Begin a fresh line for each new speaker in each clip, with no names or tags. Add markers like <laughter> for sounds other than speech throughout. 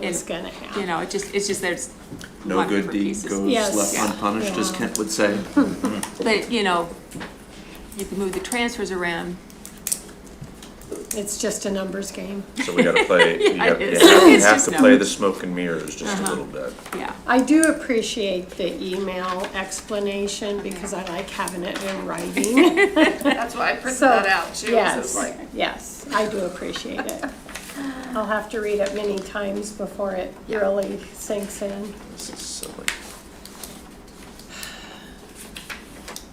was
And,
gonna
You
happen.
know, it just, it's just there's
No
one
good
for
deed
pieces.
goes
Yes.
left
Yeah.
unpunished, as
Yeah.
Kent would say.
But, you know, you can move the transfers around.
It's just a numbers game.
So we gotta play, you
Yeah,
have,
it is.
you
It's
have
just
to play the
numbers.
smoke and mirrors just a little bit.
Yeah,
I do appreciate the email explanation because I like having it in writing.
<laughs> That's why I printed
So,
that out too, so it's
yes,
like,
yes, I do appreciate
<laughs>
it. I'll have to read it many times before it
Yeah.
really sinks in.
This is silly.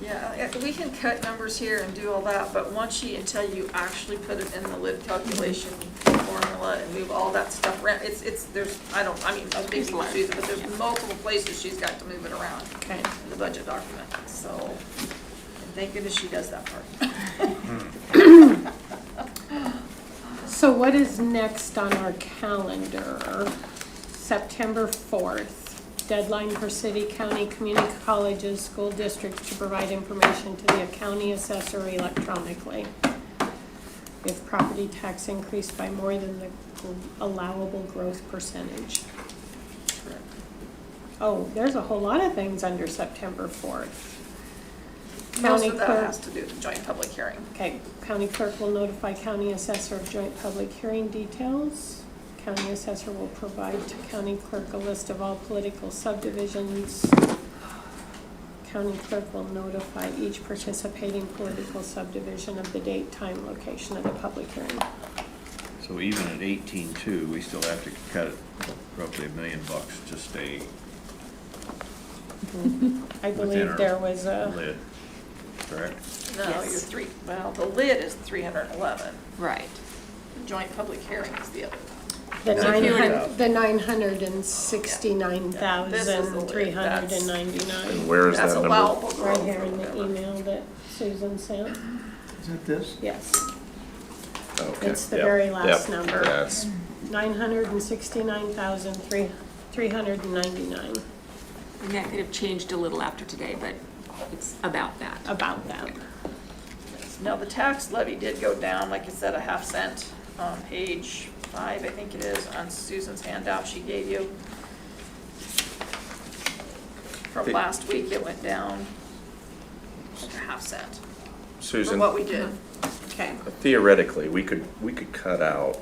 yeah, uh, we can cut numbers here and do all that, but once you, until you actually put it in the lid calculation formula and move all that stuff around, it's, it's, there's, I don't, I mean, I was
There's a
thinking
lot.
Susan, but there's multiple places she's got to move it around
Okay.
in the budget document, so, and thank goodness she does that part.
So what is next on our calendar? September 4th, deadline for city, county, community colleges, school districts to provide information to the county assessor electronically. If property tax increased by more than the allowable growth percentage. Oh, there's a whole lot of things under September 4th.
Most
County
of that
clerk-
has to do with the joint public hearing.
Okay, county clerk will notify county assessor of joint public hearing details. County assessor will provide to county clerk a list of all political subdivisions. County clerk will notify each participating political subdivision of the date, time, location of the public hearing.
So even at eighteen-two, we still have to cut roughly a million bucks to stay
I
within
believe
our
there was a,
lid, correct?
No, you're
Yes.
three, well, the lid is three hundred and eleven,
right.
the joint public hearing is the other one.
the
If you
nine
were to-
hundred, the nine hundred and sixty-nine thousand, three hundred and
And
ninety-nine.
where is
That's
that number?
allowable
Right
growth
here
or
in the
whatever.
email that Susan sent,
Is that this?
yes.
Oh, Okay.
It's the
Yep.
very last
Yep.
number.
Yes.
Nine hundred and sixty-nine thousand, three, three hundred and ninety-nine,
And that could have changed a little after today, but it's about that.
about that.
Now, the tax levy did go down, like I said, a half cent on page five, I think it is, on Susan's handout she gave you. From last week, it went down like a half cent from
Susan,
what we did.
Uh-huh.
Okay.
theoretically, we could, we could cut out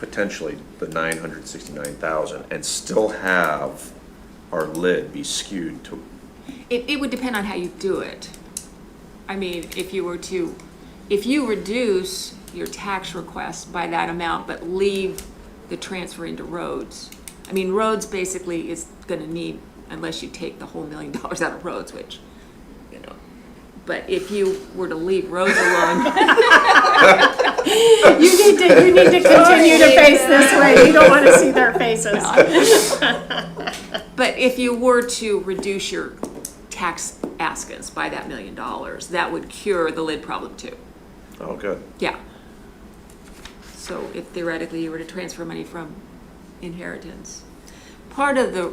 potentially the nine hundred sixty-nine thousand and still have our lid be skewed to,
It, it would depend on how you do it. I mean, if you were to, if you reduce your tax request by that amount, but leave the transfer into roads, I mean, roads basically is gonna need, unless you take the whole million <laughs> dollars out of roads, which, you know. But if you were to leave roads alone, <laughs>
You need to, you need <laughs> to continue to face this way, Oh, you don't wanna see <laughs> their faces.
but if you were to reduce your tax askance by that million dollars, that would cure the lid problem too.
oh, good.
Yeah. So if theoretically you were to transfer money from inheritance, part of the,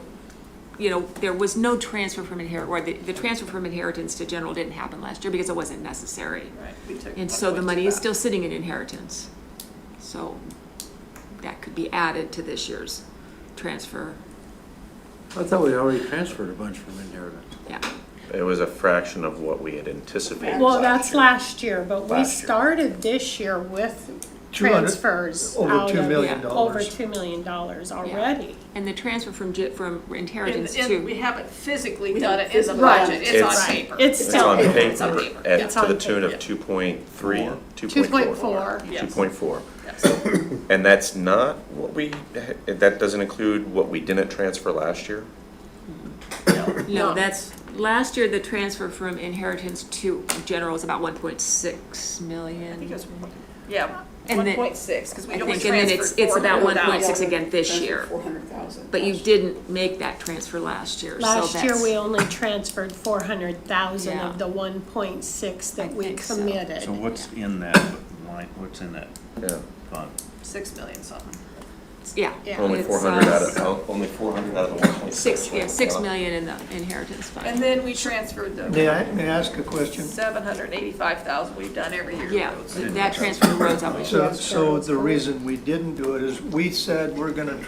you know, there was no transfer from inherit, or the, the transfer from inheritance to general didn't happen last year because it wasn't necessary.
Right, we took
And so the
1.2
money is
back.
still sitting in inheritance. So that could be added to this year's transfer,
I thought we already transferred a bunch from inheritance.
yeah.
It was a fraction of what we had anticipated.
Well,
last
that's
year.
last year, but we
Last year.
started this year with
200
transfers
over
out
$2
of-
million
Over two million dollars already.
And the transfer from JIT, from
And-
inheritance
and we
to,
haven't physically done it in the
Right.
budget, it's on
It's-
paper.
It's
It's on
still,
It's on
paper,
paper.
at,
It's
to the
on
tune
paper.
of two point three, two point
2.4.
four.
Yes.
Two point four.
Yes.
And that's not what we, that doesn't include what we didn't transfer last year?
no, that's, last year the transfer from inheritance to general was about one point six million.
I think it was one- Yeah,
And
one
then-
point six, because we
I
only
think, and then it's,
transferred
it's
four
about
hundred
one
thousand.
point six again this year,
Four hundred thousand.
but you didn't make that transfer last year, so that's.
last year we only transferred four hundred thousand
Yeah.
of the one point six that
I
we
think so.
committed.
So what's in that line, what's in that
Yeah.
fund?
Six million something.
Yeah.
Yeah.
Only
It's,
four hundred
uh,
out of, oh, only four hundred out of the one point six. Uh,
Six, yeah, six million in the inheritance fund.
And then we transferred the.
May I, may I ask a question?
Seven hundred and eighty-five thousand we've done every year.
Yeah,
Those-
that transfer to roads obviously.
So, so the reason we didn't do it is we said we're gonna